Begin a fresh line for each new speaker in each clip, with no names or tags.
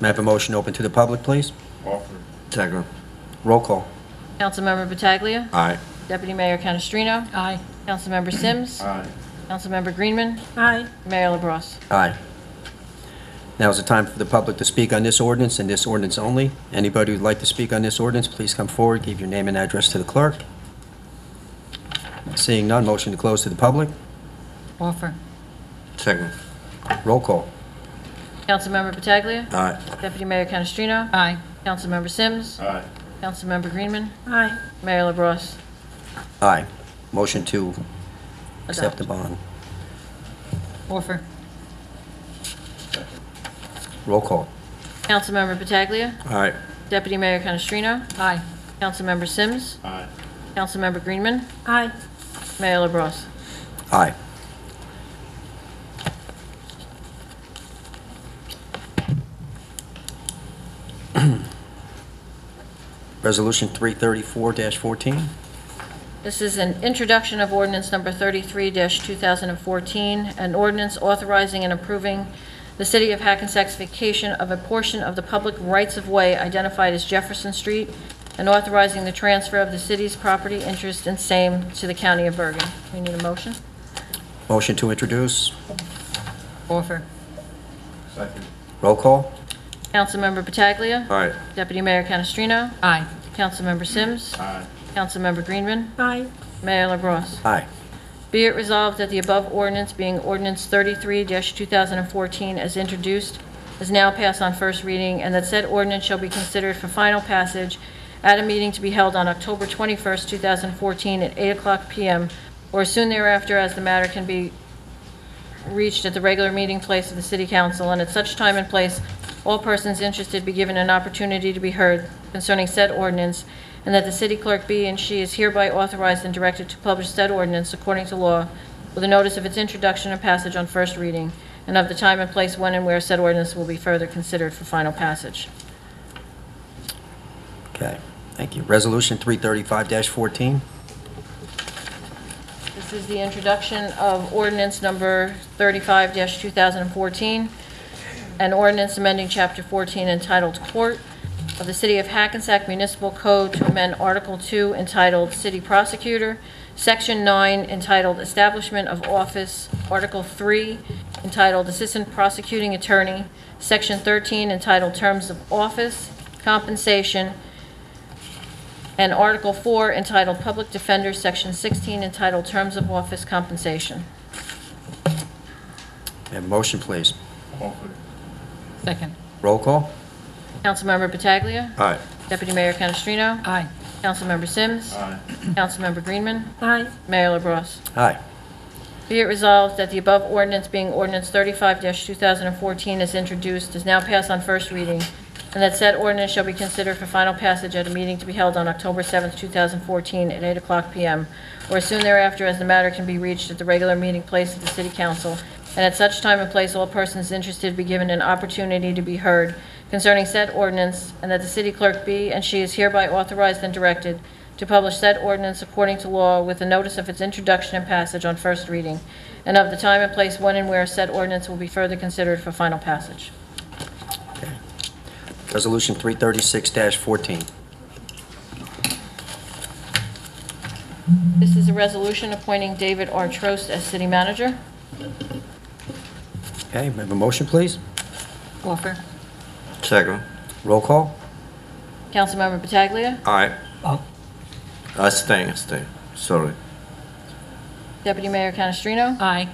May I have a motion open to the public, please?
Offer.
Second.
Roll call.
Councilmember Pataglia.
Aye.
Deputy Mayor Canestrino.
Aye.
Councilmember Sims.
Aye.
Councilmember Greenman.
Aye.
Mayor LaBrus.
Aye. Now is the time for the public to speak on this ordinance and this ordinance only. Anybody who'd like to speak on this ordinance, please come forward, give your name and address to the clerk. Seeing none, motion to close to the public.
Offer.
Second.
Roll call.
Councilmember Pataglia.
Aye.
Deputy Mayor Canestrino.
Aye.
Councilmember Sims.
Aye.
Councilmember Greenman.
Aye.
Mayor LaBrus.
Aye. Motion to accept the
Adopt.
bond.
Offer.
Roll call.
Councilmember Pataglia.
Aye.
Deputy Mayor Canestrino.
Aye.
Councilmember Sims.
Aye.
Councilmember Greenman.
Aye.
Mayor LaBrus.
Aye. Resolution 334-14.
This is an introduction of ordinance number 33-2014, an ordinance authorizing and approving the City of Hackensack's vacation of a portion of the public rights-of-way identified as Jefferson Street, and authorizing the transfer of the city's property interest in same to the County of Bergen. We need a motion?
Motion to introduce.
Offer.
Second.
Roll call.
Councilmember Pataglia.
Aye.
Deputy Mayor Canestrino.
Aye.
Councilmember Sims.
Aye.
Councilmember Greenman.
Aye.
Mayor LaBrus.
Aye.
Be it resolved that the above ordinance, being ordinance 33-2014 as introduced, is now passed on first reading, and that said ordinance shall be considered for final passage at a meeting to be held on October 21st, 2014, at 8:00 p.m. or soon thereafter, as the matter can be reached at the regular meeting place of the City Council, and at such time and place, all persons interested be given an opportunity to be heard concerning said ordinance, and that the city clerk be and she is hereby authorized and directed to publish said ordinance according to law with a notice of its introduction and passage on first reading, and of the time and place when and where said ordinance will be further considered for final passage.
Okay, thank you. Resolution 335-14.
This is the introduction of ordinance number 35-2014, an ordinance amending Chapter 14 entitled Court of the City of Hackensack Municipal Code to amend Article 2 entitled City Prosecutor, Section 9 entitled Establishment of Office, Article 3 entitled Assistant Prosecuting Attorney, Section 13 entitled Terms of Office, Compensation, and Article 4 entitled Public Defender, Section 16 entitled Terms of Office Compensation.
May I have a motion, please?
Offer.
Second.
Roll call.
Councilmember Pataglia.
Aye.
Deputy Mayor Canestrino.
Aye.
Councilmember Sims.
Aye.
Councilmember Greenman.
Aye.
Mayor LaBrus.
Aye.
Be it resolved that the above ordinance being ordinance 35-2014 as introduced is now passed on first reading, and that said ordinance shall be considered for final passage at a meeting to be held on October 7th, 2014, at 8 o'clock p.m., or soon thereafter, as the matter can be reached at the regular meeting place of the City Council, and at such time and place, all persons interested be given an opportunity to be heard concerning said ordinance, and that the city clerk be and she is hereby authorized and directed to publish said ordinance according to law with a notice of its introduction and passage on first reading, and of the time and place when and where said ordinance will be further considered for final passage.
Resolution 336-14.
This is a resolution appointing David R. Trost as city manager.
Okay, may I have a motion, please?
Offer.
Second.
Roll call.
Councilmember Pataglia.
Aye. I stay, stay. Sorry.
Deputy Mayor Canestrino.
Aye.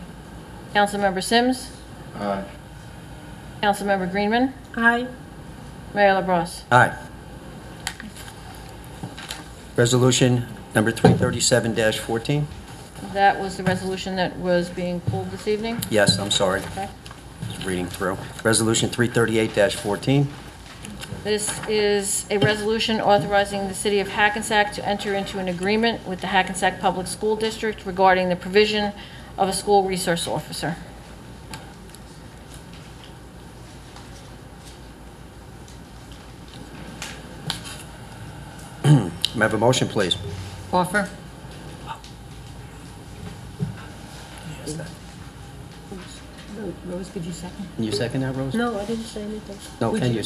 Councilmember Sims.
Aye.
Councilmember Greenman.
Aye.
Mayor LaBrus.
Aye. Resolution number 337-14.
That was the resolution that was being pulled this evening.
Yes, I'm sorry,
Okay.
just reading through. Resolution 338-14.
This is a resolution authorizing the City of Hackensack to enter into an agreement with the Hackensack Public School District regarding the provision of a school resource officer.
May I have a motion, please?
Offer. Rose, did you second?
Can you second that, Rose?
No, I didn't say anything.
No,
Would
can you?